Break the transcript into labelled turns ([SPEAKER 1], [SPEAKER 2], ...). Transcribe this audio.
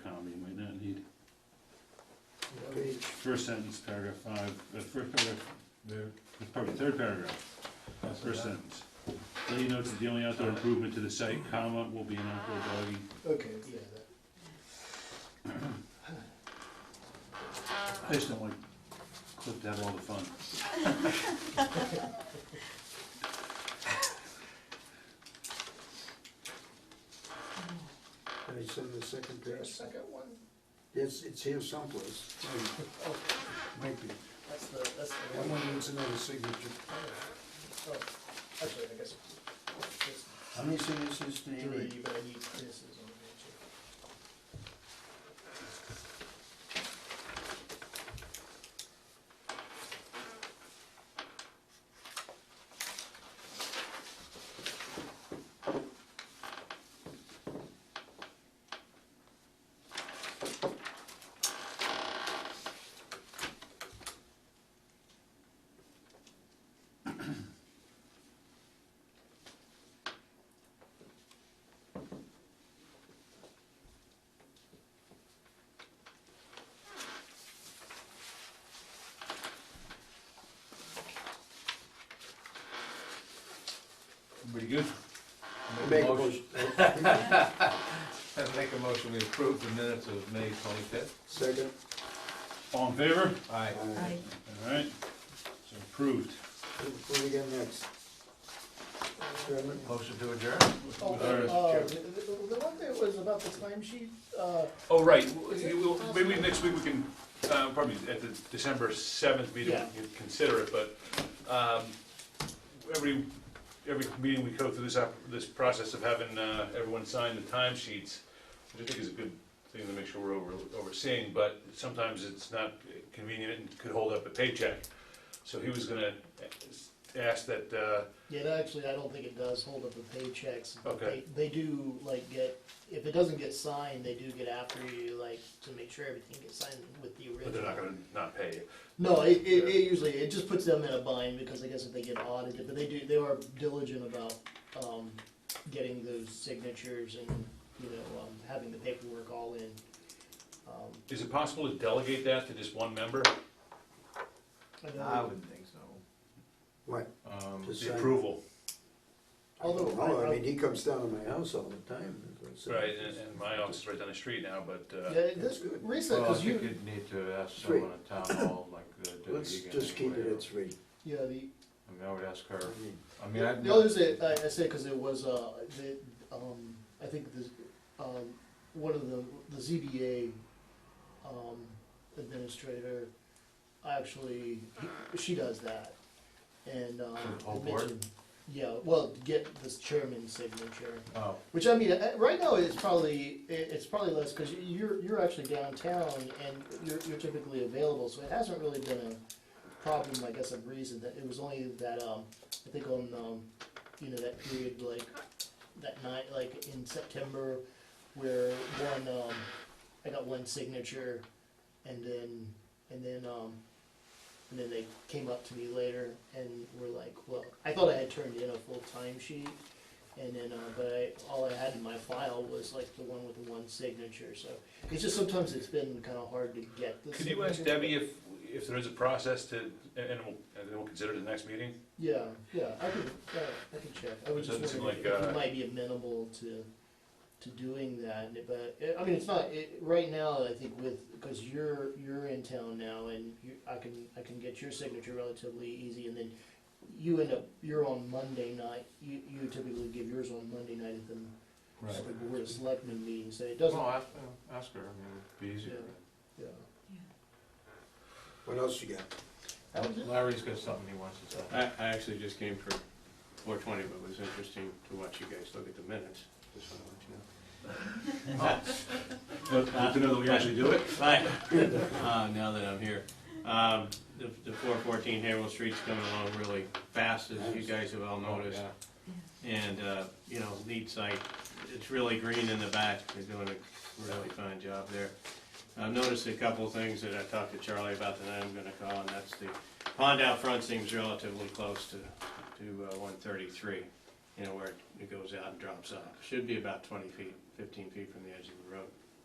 [SPEAKER 1] first sentence, paragraph five, the first paragraph, the, the par- third paragraph, first sentence. Lee notes that the only outdoor improvement to the site, comma, will be an outdoor doggy.
[SPEAKER 2] Okay, yeah, that,
[SPEAKER 1] I just don't want Cliff to have all the fun.
[SPEAKER 3] Can I send the second
[SPEAKER 2] the
[SPEAKER 3] page?
[SPEAKER 2] second one,
[SPEAKER 3] Yes, it's here someplace. Oh, Might be.
[SPEAKER 2] that's the, that's the
[SPEAKER 3] That
[SPEAKER 2] one.
[SPEAKER 3] one needs another signature.
[SPEAKER 2] Oh, actually, I guess, it's
[SPEAKER 3] How many signatures do you
[SPEAKER 2] three,
[SPEAKER 3] need?
[SPEAKER 2] but I need Chris's on there too.
[SPEAKER 1] Pretty good?
[SPEAKER 3] Make a
[SPEAKER 4] Motion.
[SPEAKER 3] motion.
[SPEAKER 4] I make a motion, we approve the minutes of May twenty-fifth.
[SPEAKER 3] Second.
[SPEAKER 1] All in favor?
[SPEAKER 4] Aye.
[SPEAKER 5] I,
[SPEAKER 1] All right, so approved.
[SPEAKER 3] What do we got next? Chairman?
[SPEAKER 4] Motion to adjourn?
[SPEAKER 2] Oh,
[SPEAKER 1] Alright.
[SPEAKER 2] uh, the, the the one that was about the timesheet, uh,
[SPEAKER 1] Oh, right, We'll- we'll- maybe next week we can, uh, probably at the December seventh meeting,
[SPEAKER 2] Yeah.
[SPEAKER 1] we can consider it, but, um, every, every meeting we go through this, op- this process of having, uh, everyone sign the timesheets, which I think is a good thing to make sure we're over, overseeing, but sometimes it's not convenient and could hold up a paycheck. So he was gonna ask that, uh,
[SPEAKER 2] yeah, that actually, I don't think it does hold up the paychecks. but
[SPEAKER 1] Okay.
[SPEAKER 2] They, they do like get, if it doesn't get signed, they do get after you, like, to make sure everything gets signed with the original.
[SPEAKER 1] but they're not gonna not pay you.
[SPEAKER 2] No, it, it, it usually, it just puts them in a bind because I guess if they get audited, but they do, they are diligent about, um, getting those signatures and, you know, um, having the paperwork all in. Um,
[SPEAKER 1] Is it possible to delegate that to just one member?
[SPEAKER 2] I
[SPEAKER 4] I
[SPEAKER 2] know-
[SPEAKER 4] wouldn't think so.
[SPEAKER 3] What?
[SPEAKER 4] Um,
[SPEAKER 3] Just
[SPEAKER 1] The
[SPEAKER 3] sign.
[SPEAKER 1] approval,
[SPEAKER 2] Although,
[SPEAKER 3] No,
[SPEAKER 2] I-
[SPEAKER 3] I mean, he comes down to my house all the time. so-
[SPEAKER 1] right, and, and my office is right down the street now, but, uh,
[SPEAKER 2] Yeah, this,
[SPEAKER 3] good.
[SPEAKER 2] Risa,
[SPEAKER 6] Well, I
[SPEAKER 2] cause
[SPEAKER 6] think
[SPEAKER 2] you,
[SPEAKER 6] you'd need to ask
[SPEAKER 3] Three.
[SPEAKER 6] someone at town hall, like, uh, Debbie
[SPEAKER 3] Let's
[SPEAKER 6] Egan
[SPEAKER 3] just keep it
[SPEAKER 6] anyway.
[SPEAKER 3] at three.
[SPEAKER 2] yeah, the,
[SPEAKER 6] I mean, I would ask her,
[SPEAKER 3] I mean,
[SPEAKER 6] I mean, I'd.
[SPEAKER 2] the other thing, I, I say, cause it was, uh, the, um, I think this, um, one of the, the ZBA, um, administrator, actually, he- she does that. And, um.
[SPEAKER 6] For the whole
[SPEAKER 2] it
[SPEAKER 6] board?
[SPEAKER 2] mentioned- Yeah, well, to get this chairman's signature,
[SPEAKER 6] Oh,
[SPEAKER 2] which I mean, uh, right now it's probably, it- it's probably less, cause you're, you're actually downtown and you're, you're typically available, so it hasn't really been a problem, I guess, of reason, that it was only that, um, I think on, um, you know, that period, like, that night, like in September, where one, um, I got one signature, and then, and then, um, and then they came up to me later and were like, well, I thought I had turned in a full time sheet, and then, uh, but I, all I had in my file was like the one with the one signature, so it's just sometimes it's been kind of hard to get the.
[SPEAKER 1] could you ask
[SPEAKER 2] signature.
[SPEAKER 1] Debbie if, if there is a process to, and and we'll, and then we'll consider it the next meeting?
[SPEAKER 2] Yeah, yeah, I can, yeah, I can check. I
[SPEAKER 1] It
[SPEAKER 2] was just
[SPEAKER 1] doesn't seem
[SPEAKER 2] wondering if
[SPEAKER 1] like,
[SPEAKER 2] you
[SPEAKER 1] uh,
[SPEAKER 2] might be amenable to, to doing that, and it- but, eh, I mean, it's not, it, right now, I think with, because you're, you're in town now, and you, I can, I can get your signature relatively easy, and then you end up, you're on Monday night, you, you typically give yours on Monday night at the
[SPEAKER 6] right.
[SPEAKER 2] Board of Selectmen meeting, so it
[SPEAKER 6] Well,
[SPEAKER 2] doesn't,
[SPEAKER 6] ask, uh, ask her, I mean, it'd be easier.
[SPEAKER 2] Yeah. yeah.
[SPEAKER 3] What else you got?
[SPEAKER 2] That was it.
[SPEAKER 6] Larry's got something he wants to say.
[SPEAKER 7] I, I actually just came for four twenty, but it was interesting to watch you guys look at the minutes, just wanna let you know.
[SPEAKER 1] To know that we actually do it?
[SPEAKER 7] Right, uh, now that I'm here. Um, the, the four fourteen Haverhill Street's coming along really fast, as you guys have all noticed.
[SPEAKER 6] Yeah.
[SPEAKER 7] And, uh, you know, neat site, it's really green in the back, they're doing a really fine job there. I've noticed a couple of things that I talked to Charlie about tonight I'm gonna call, and that's the pond out front seems relatively close to, to uh, one thirty-three, you know, where it goes out and drops off. Should be about twenty feet, fifteen feet from the edge of the road.